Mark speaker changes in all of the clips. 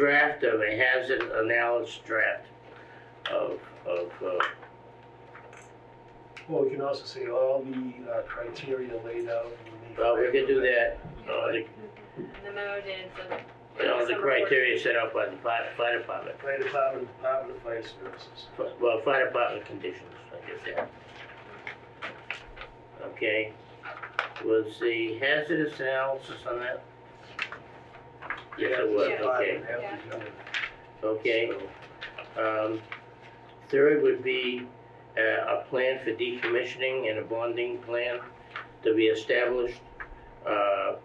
Speaker 1: draft of a hazard analysis draft of, of, uh,
Speaker 2: Well, we can also say all the uh, criteria laid out in the.
Speaker 1: well, we could do that. uh, the-
Speaker 3: The mode is, uh,
Speaker 1: You know, the criteria set up by the fire, fire department,
Speaker 2: Fire department, department of fire services.
Speaker 1: Fi- well, fire department conditions, I guess that. Okay, was the hazardous analysis on that? Yes, it was,
Speaker 3: Yeah.
Speaker 1: okay,
Speaker 2: Have to do it.
Speaker 1: okay.
Speaker 2: So,
Speaker 1: Um, Third would be uh, a plan for decommissioning and a bonding plan to be established. uh,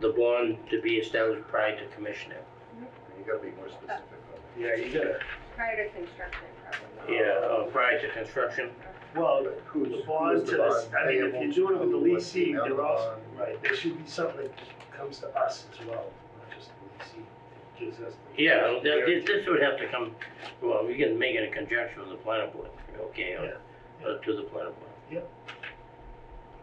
Speaker 1: The bond to be established prior to commissioning.
Speaker 4: You gotta be more specific on
Speaker 2: Yeah, you gotta,
Speaker 3: prior to construction, probably.
Speaker 1: Yeah, uh, prior to construction.
Speaker 2: well,
Speaker 4: that.
Speaker 2: the bond to this, I mean, if you're doing it with the leasing, they're also, right, there should be something that comes to us as well, not just the leasing. Gives us. the-
Speaker 1: Yeah, th- th- this would have to come, well, we can make it in conjunction with the planning board, okay, or- or to the planning board.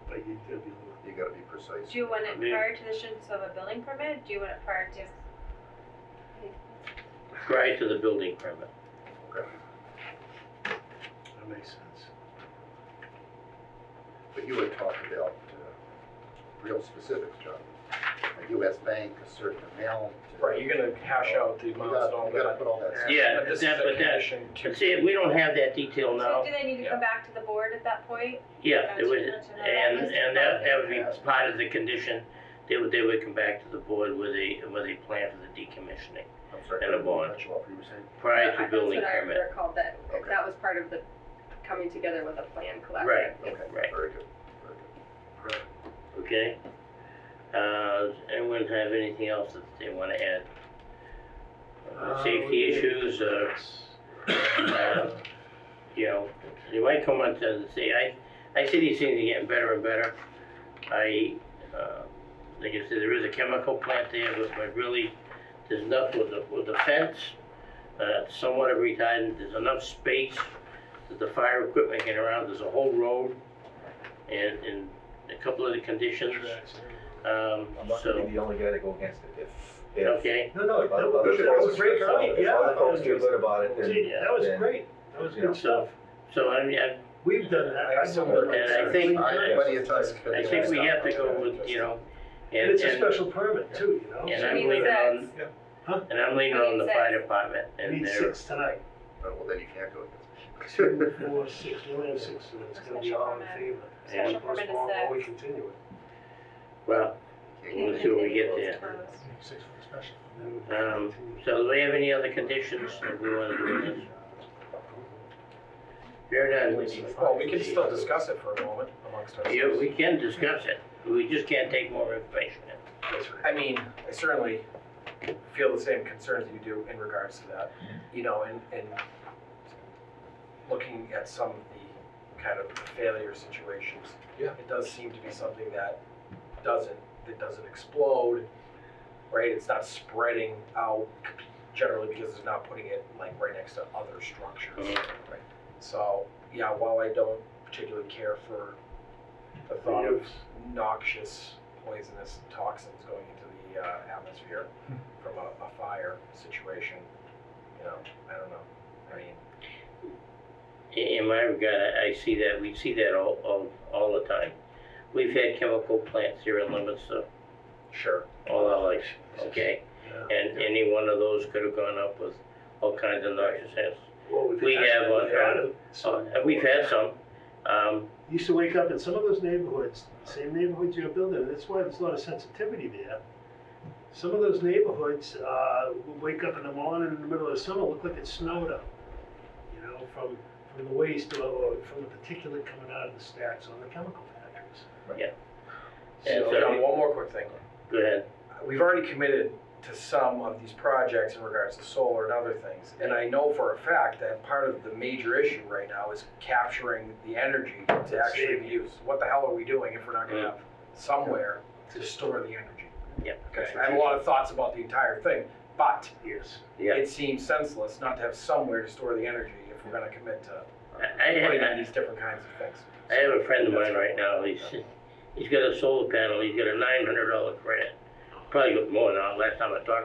Speaker 2: But you gotta be a
Speaker 4: You gotta be precise.
Speaker 3: Do you want it
Speaker 1: Yeah.
Speaker 3: prior to the issuance of a building permit? Do you want it prior to?
Speaker 1: Prior to the building permit.
Speaker 2: little, that makes sense.
Speaker 4: But you had talked about uh, real specifics, John. A US bank, a certain amount. uh,
Speaker 5: Right, you're gonna hash out the
Speaker 4: You
Speaker 5: amounts and all
Speaker 4: gotta, you gotta
Speaker 5: that.
Speaker 4: put all that. stuff.
Speaker 1: Yeah,
Speaker 5: But this is
Speaker 1: that- but
Speaker 5: a
Speaker 1: that-
Speaker 5: condition to.
Speaker 1: But see, we don't have that detail
Speaker 3: So
Speaker 1: now.
Speaker 3: do they need to come back to the board at that point?
Speaker 1: Yeah, it
Speaker 3: Gotcha,
Speaker 1: was,
Speaker 3: gotcha. No,
Speaker 1: and,
Speaker 3: that was-
Speaker 1: and that, that would be part of the condition, they would, they would come back to the board with a, with a plan for the decommissioning
Speaker 4: I'm sorry.
Speaker 1: And a bond.
Speaker 4: That's what you were saying.
Speaker 1: prior to building
Speaker 6: That's
Speaker 1: permit.
Speaker 6: what I recalled, that,
Speaker 4: Okay.
Speaker 6: that was part of the coming together with a plan collaborative.
Speaker 1: Right,
Speaker 4: Okay,
Speaker 1: Right.
Speaker 4: very good, very
Speaker 1: okay? Uh, does anyone have anything else that they wanna add? Uh,
Speaker 2: Uh,
Speaker 1: Safety
Speaker 2: we-
Speaker 1: issues, uh, uh, you know, you might come on to say, I, I see these things are getting better and better. I, uh, like I said, there is a chemical plant there, but, but really, there's enough with the, with the fence, uh, somewhat of retardant, there's enough space that the fire equipment can around, there's a whole road and, and a couple of the conditions, um,
Speaker 7: I'm not gonna
Speaker 1: so,
Speaker 7: be the only guy to go against it if, if.
Speaker 1: okay,
Speaker 2: No, no,
Speaker 7: if
Speaker 2: that
Speaker 7: other
Speaker 2: was, that
Speaker 7: folks
Speaker 2: was great,
Speaker 7: feel-
Speaker 2: right,
Speaker 7: If
Speaker 2: yeah.
Speaker 7: other folks
Speaker 2: that
Speaker 7: feel
Speaker 2: was-
Speaker 7: good about it, then.
Speaker 2: Gee, that was
Speaker 7: then-
Speaker 2: great, that was
Speaker 7: you know.
Speaker 2: good stuff.
Speaker 1: so I mean, I,
Speaker 2: We've done that. I know that.
Speaker 1: And I
Speaker 4: good.
Speaker 1: think-
Speaker 4: I had plenty of times. for
Speaker 1: I
Speaker 4: the
Speaker 1: think we
Speaker 4: other
Speaker 1: have to
Speaker 4: stuff.
Speaker 1: go with, you know, and,
Speaker 2: And it's a
Speaker 1: and,
Speaker 2: special permit too, you know?
Speaker 1: and
Speaker 2: so
Speaker 1: I'm
Speaker 6: She needs
Speaker 1: leaning on,
Speaker 6: six.
Speaker 2: Huh?
Speaker 1: and I'm leaning
Speaker 3: She
Speaker 1: on the
Speaker 3: needs
Speaker 1: fire
Speaker 3: six.
Speaker 1: department
Speaker 2: We
Speaker 1: and
Speaker 2: need
Speaker 1: their
Speaker 2: six tonight.
Speaker 4: Oh, Well, then you can't go
Speaker 2: Two,
Speaker 4: against it.
Speaker 2: four, six, we only have six, so it's gonna be
Speaker 3: Special
Speaker 2: all in
Speaker 3: permit.
Speaker 2: favor.
Speaker 1: Special
Speaker 2: We
Speaker 3: permit is
Speaker 2: postpone while
Speaker 3: six.
Speaker 2: We continue it.
Speaker 1: Well,
Speaker 4: You
Speaker 1: We'll
Speaker 4: can't
Speaker 1: see
Speaker 4: go
Speaker 1: when we get
Speaker 4: against
Speaker 1: there.
Speaker 4: it.
Speaker 2: Six for special.
Speaker 1: Um, so do we have any other conditions that we wanna do in this? Here it is.
Speaker 5: Well, we can still discuss it for a moment amongst
Speaker 1: Yeah,
Speaker 5: ourselves.
Speaker 1: we can discuss it, we just can't take more information in.
Speaker 5: I mean, I certainly feel the same concerns you do in regards to that, you know, and, and looking at some of the kind of failure situations.
Speaker 7: Yeah.
Speaker 5: It does seem to be something that doesn't, that doesn't explode, right? It's not spreading out generally because it's not putting it like right next to other structures.
Speaker 1: Mhm.
Speaker 5: Right. So, yeah, while I don't particularly care for the thought of noxious, poisonous toxins going into the uh, atmosphere from a, a fire situation. You know, I don't know. I mean,
Speaker 1: In in my regard, I, I see that, we see that all, all, all the time. We've had chemical plants here in Leominster
Speaker 5: sure.
Speaker 1: all our life, okay? And any one of those could have gone up with all kinds of noxious hazards. we have on- So, and Uh, we've had some, um,
Speaker 2: Used to wake up in some of those neighborhoods, same neighborhoods you're building, and that's why there's a lot of sensitivity there. Some of those neighborhoods, uh, would wake up in the morning in the middle of summer, look like it snowed up. You know, from, from the waste or, or from the particulate coming out of the stacks on the chemical factories.
Speaker 1: And
Speaker 5: So,
Speaker 1: so-
Speaker 5: John, one more quick thing.
Speaker 1: go ahead,
Speaker 5: We've already committed to some of these projects in regards to solar and other things. And I know for a fact that part of the major issue right now is capturing the energy to actually be used. What the hell are we doing if we're not gonna have somewhere to store the energy?
Speaker 1: Yeah.
Speaker 5: Okay, I have a lot of thoughts about the entire thing, but
Speaker 2: Yes.
Speaker 1: yeah.
Speaker 5: it seems senseless not to have somewhere to store the energy if we're gonna commit to
Speaker 1: I, I
Speaker 5: putting
Speaker 1: had,
Speaker 5: in these different kinds of things.
Speaker 1: I have a friend of mine right now, he's, he's got a solar panel, he's got a nine hundred dollar grant. Probably got more now, last time I talked